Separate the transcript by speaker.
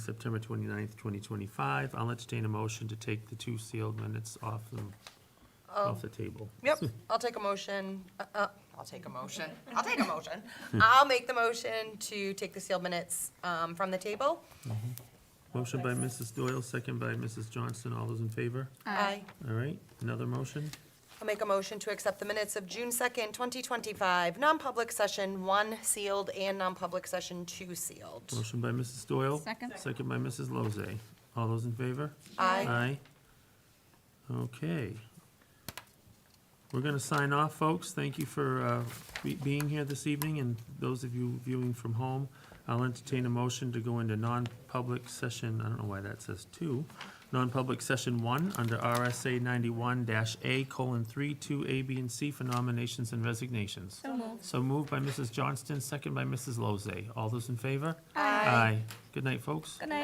Speaker 1: September 29th, 2025. I'll entertain a motion to take the two sealed minutes off the, off the table.
Speaker 2: Yep, I'll take a motion, uh, uh, I'll take a motion, I'll take a motion. I'll make the motion to take the sealed minutes, um, from the table.
Speaker 1: Motion by Mrs. Doyle, second by Mrs. Johnston. All those in favor?
Speaker 2: Aye.
Speaker 1: All right, another motion?
Speaker 2: I'll make a motion to accept the minutes of June second, twenty twenty-five, non-public session one sealed and non-public session two sealed.
Speaker 1: Motion by Mrs. Doyle.
Speaker 3: Second.
Speaker 1: Second by Mrs. Lozay. All those in favor?
Speaker 2: Aye.
Speaker 1: Aye. Okay. We're going to sign off, folks. Thank you for uh, be- being here this evening, and those of you viewing from home. I'll entertain a motion to go into non-public session, I don't know why that says two, non-public session one, under RSA ninety-one dash A colon three, two, A, B, and C for nominations and resignations.
Speaker 3: So moved.
Speaker 1: So moved by Mrs. Johnston, second by Mrs. Lozay. All those in favor?
Speaker 2: Aye.
Speaker 1: Aye. Good night, folks.
Speaker 3: Good night.